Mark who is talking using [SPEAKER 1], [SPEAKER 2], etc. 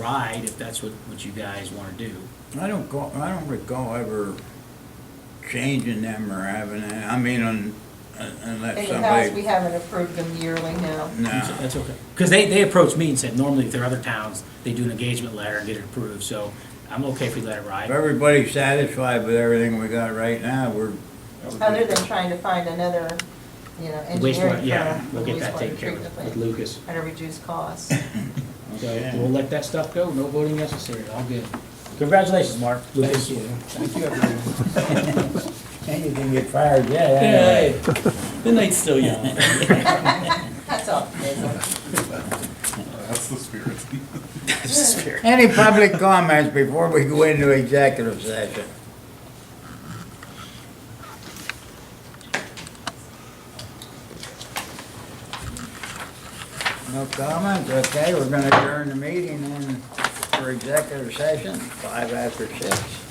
[SPEAKER 1] ride, if that's what, what you guys want to do.
[SPEAKER 2] I don't go, I don't recall ever changing them or having, any- I mean, un- un-
[SPEAKER 3] In
[SPEAKER 2] unless
[SPEAKER 3] the past,
[SPEAKER 2] somebody,
[SPEAKER 3] we haven't approved them yearly now.
[SPEAKER 2] no.
[SPEAKER 1] That's okay. Because they, they approached me and said, normally if there are other towns, they do an engagement letter and get it approved, so I'm okay if we let it
[SPEAKER 2] If
[SPEAKER 1] ride.
[SPEAKER 2] everybody's satisfied with everything we got right now, we're.
[SPEAKER 3] Other than trying to find another, you know,
[SPEAKER 1] Wastewater,
[SPEAKER 3] engineering
[SPEAKER 1] yeah,
[SPEAKER 3] firm. for
[SPEAKER 1] we'll get that
[SPEAKER 3] wastewater
[SPEAKER 1] taken care
[SPEAKER 3] treatment
[SPEAKER 1] of with
[SPEAKER 3] plant
[SPEAKER 1] Lucas.
[SPEAKER 3] At a reduced cost.
[SPEAKER 1] So we'll let that stuff go, no voting necessary, all good. Congratulations, Mark. Lucas.
[SPEAKER 4] Thank you, everyone.
[SPEAKER 2] And you can get fired yet. anyway.
[SPEAKER 4] Yay. The night's still young.
[SPEAKER 3] That's optimism.
[SPEAKER 5] That's the spirit.
[SPEAKER 1] That's the spirit.
[SPEAKER 2] Any public comments before we go into executive session? No comments, okay, we're gonna adjourn the meeting and for executive session, five after six.